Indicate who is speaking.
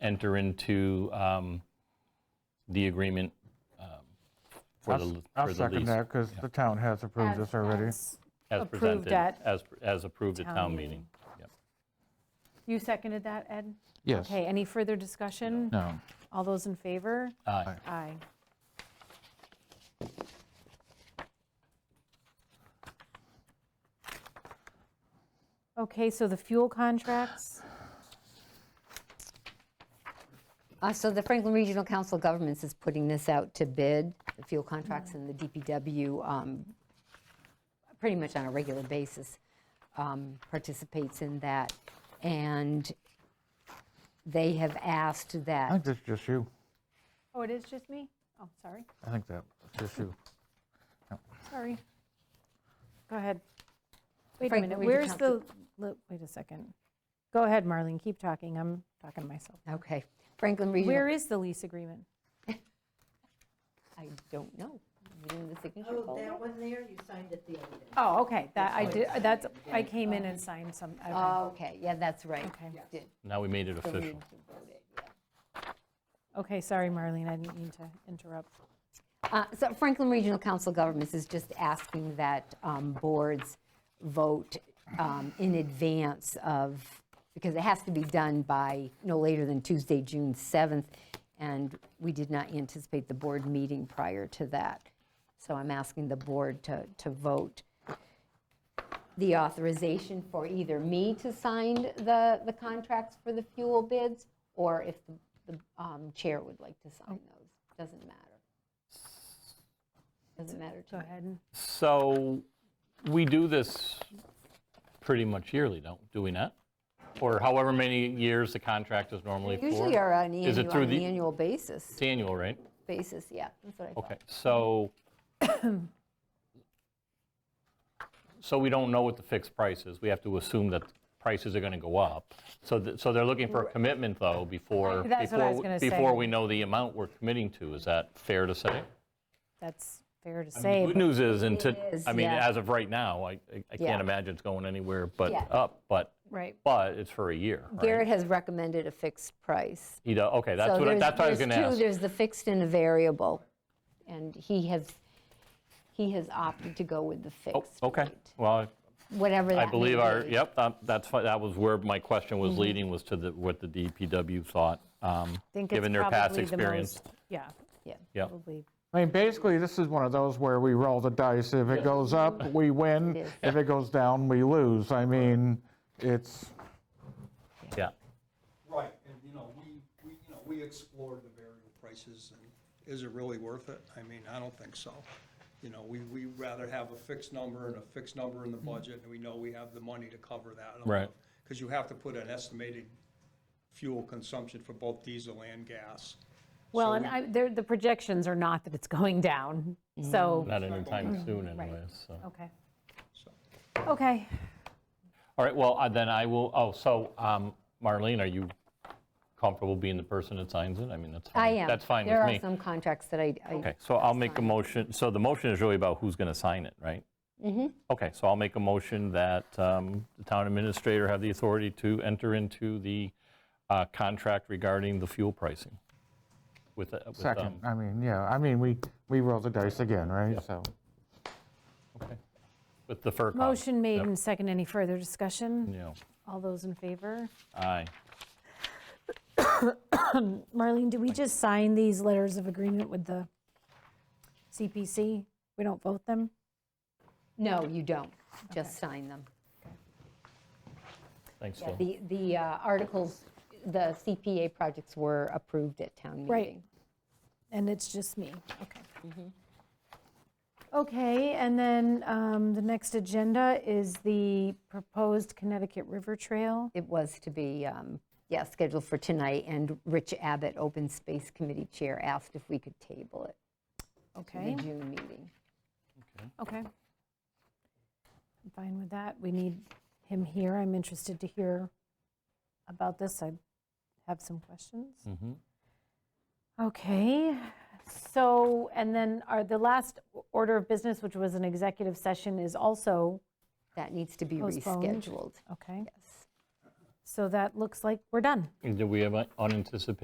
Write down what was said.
Speaker 1: enter into um, the agreement um, for
Speaker 2: I'll
Speaker 1: the
Speaker 2: s- I'll
Speaker 1: for the
Speaker 2: second
Speaker 1: lease
Speaker 2: that because the town has approved this already.
Speaker 3: As-
Speaker 1: as
Speaker 3: approved
Speaker 1: presented,
Speaker 3: at
Speaker 1: as as approved at
Speaker 3: town
Speaker 1: town
Speaker 3: meeting.
Speaker 1: meeting. Yep.
Speaker 3: You seconded that, Ed?
Speaker 2: Yes.
Speaker 3: Okay, any further discussion?
Speaker 2: No.
Speaker 3: All those in favor?
Speaker 1: Aye.
Speaker 3: Aye. Okay, so the fuel contracts,
Speaker 4: Uh, So the Franklin Regional Council of Governments is putting this out to bid, the fuel contracts and the DPW, um, pretty much on a regular basis, um, participates in that. And they have asked
Speaker 2: I
Speaker 4: that,
Speaker 2: think that's just you.
Speaker 3: oh, it is just me? Oh, sorry,
Speaker 2: I think that's just you.
Speaker 3: sorry. Go ahead. Wait a
Speaker 4: Franklin
Speaker 3: minute,
Speaker 4: Regional
Speaker 3: where's the,
Speaker 4: Council.
Speaker 3: li- wait a second. Go ahead, Marlene, keep talking, I'm talking to myself.
Speaker 4: okay, Franklin Regional,
Speaker 3: Where is the lease agreement?
Speaker 4: I don't know, Is it in the signature
Speaker 5: Oh,
Speaker 4: folder?
Speaker 5: that one there, you signed it the other day.
Speaker 3: Oh, okay, that, I Uh, did, that's, I came in and signed some, okay.
Speaker 4: Oh, okay, yeah, that's right.
Speaker 3: Okay. Yeah.
Speaker 4: Did-
Speaker 1: Now we made it
Speaker 4: so we
Speaker 1: official.
Speaker 4: voted, yeah.
Speaker 3: Okay, sorry, Marlene, I didn't mean to interrupt.
Speaker 4: Uh, So Franklin Regional Council of Governments is just asking that um, boards vote um, in advance of, because it has to be done by no later than Tuesday, June 7th, and we did not anticipate the board meeting prior to that. So I'm asking the board to, to vote the authorization for either me to sign the, the contracts for the fuel bids, or if the the, um, chair would like to sign
Speaker 3: Oh.
Speaker 4: those, doesn't matter. Doesn't matter to
Speaker 3: Go
Speaker 4: me.
Speaker 3: ahead.
Speaker 1: So we do this pretty much yearly, don't, do we not? Or however many years the contract is normally for?
Speaker 4: Usually are on
Speaker 1: Is it
Speaker 4: annual,
Speaker 1: through
Speaker 4: on an
Speaker 1: the-
Speaker 4: annual basis,
Speaker 1: It's annual, right?
Speaker 4: basis, yeah, that's what I thought.
Speaker 1: Okay, so, so we don't know what the fixed price is. We have to assume that prices are going to go up. So, th- so they're looking for a commitment, though, before,
Speaker 3: That's what I was
Speaker 1: before-
Speaker 3: gonna say.
Speaker 1: before we know the amount we're committing to. Is that fair to say?
Speaker 3: That's fair to
Speaker 1: I mean,
Speaker 3: say.
Speaker 1: Good news is, and to,
Speaker 4: It is,
Speaker 1: I mean,
Speaker 4: yeah.
Speaker 1: as of right now, I, I- I
Speaker 4: Yeah.
Speaker 1: can't imagine it's going anywhere but
Speaker 4: Yeah.
Speaker 1: up, but,
Speaker 3: Right.
Speaker 1: but it's for a year, right?
Speaker 4: Garrett has recommended a fixed price.
Speaker 1: He does, okay, that's
Speaker 4: So
Speaker 1: what, I-
Speaker 4: there's-
Speaker 1: that's what I was
Speaker 4: there's
Speaker 1: going to ask.
Speaker 4: two, There's the fixed and the variable, and he has, he has opted to go with the
Speaker 1: Oh,
Speaker 4: fixed.
Speaker 1: Okay,
Speaker 4: rate,
Speaker 1: well,
Speaker 4: Whatever that
Speaker 1: I
Speaker 4: may
Speaker 1: believe our,
Speaker 4: be.
Speaker 1: yep, um, that's, fi- that was where my question was
Speaker 3: Mm-hmm.
Speaker 1: leading, was to the, what the DPW thought, um,
Speaker 3: think it's
Speaker 1: given their past
Speaker 3: probably the
Speaker 1: experience.
Speaker 3: most- Yeah,
Speaker 4: Yeah.
Speaker 1: Yeah,
Speaker 3: probably.
Speaker 2: I mean, basically, this is one of those where we roll the dice. If it goes up, we win. If it goes down, we lose. I mean, it's,
Speaker 1: yeah.
Speaker 6: Right, and, you know, we, we, you know, we explored the variable prices, and is it really worth it? I mean, I don't think so. You know, we, we rather have a fixed number and a fixed number in the budget, and we know we have the money to cover that.
Speaker 1: Right.
Speaker 6: Because you have to put an estimated fuel consumption for both diesel and gas.
Speaker 3: Well, and I, there- the projections are not that it's going down, so,
Speaker 1: Not
Speaker 3: Mm-hmm.
Speaker 1: anytime soon anyways, so.
Speaker 3: okay.
Speaker 6: So-
Speaker 3: Okay,
Speaker 1: Oh, All right, well, uh, then I will, oh, so um, Marlene, are you comfortable being the person that signs it? I mean, that's fine.
Speaker 4: I am.
Speaker 1: That's fine with me.
Speaker 4: There are some contracts that I, I-
Speaker 1: Okay, so I'll make a motion, so the motion is really about who's going to sign it, right? Mm-hmm. Okay, so I'll make a motion that um, the town administrator have the authority to enter into the uh, contract regarding the fuel pricing with, uh, with,
Speaker 2: second,
Speaker 1: um,
Speaker 2: I mean, yeah, I mean, we, we roll the dice again, right? So,
Speaker 1: with the FERC.
Speaker 3: motion made and second. Any further discussion?
Speaker 1: Yeah,
Speaker 3: All those in favor?
Speaker 1: aye.
Speaker 3: Marlene, do we just sign these letters of agreement with the CPC? We don't vote them?
Speaker 4: no, you don't, just sign them.
Speaker 1: Thanks,
Speaker 4: Yeah,
Speaker 1: Phil.
Speaker 4: The, the uh, articles, the CPA projects were approved at town meeting.
Speaker 3: Right. And it's just me, okay. Okay, and then um, the next agenda is the proposed Connecticut River Trail.
Speaker 4: It was to be, um, yeah, scheduled for tonight, and Rich Abbott, Open Space Committee Chair, asked if we could table it to
Speaker 3: Okay,
Speaker 4: the June meeting.
Speaker 3: okay. I'm fine with that. We need him here. I'm interested to hear about this. I have some questions.
Speaker 1: Mhm.
Speaker 3: Okay, so, and then our, the last order of business, which was an executive session, is also,
Speaker 4: That needs to be
Speaker 3: Postponed.
Speaker 4: rescheduled.
Speaker 3: okay? So that looks like we're done.
Speaker 1: And Did we have unanticipated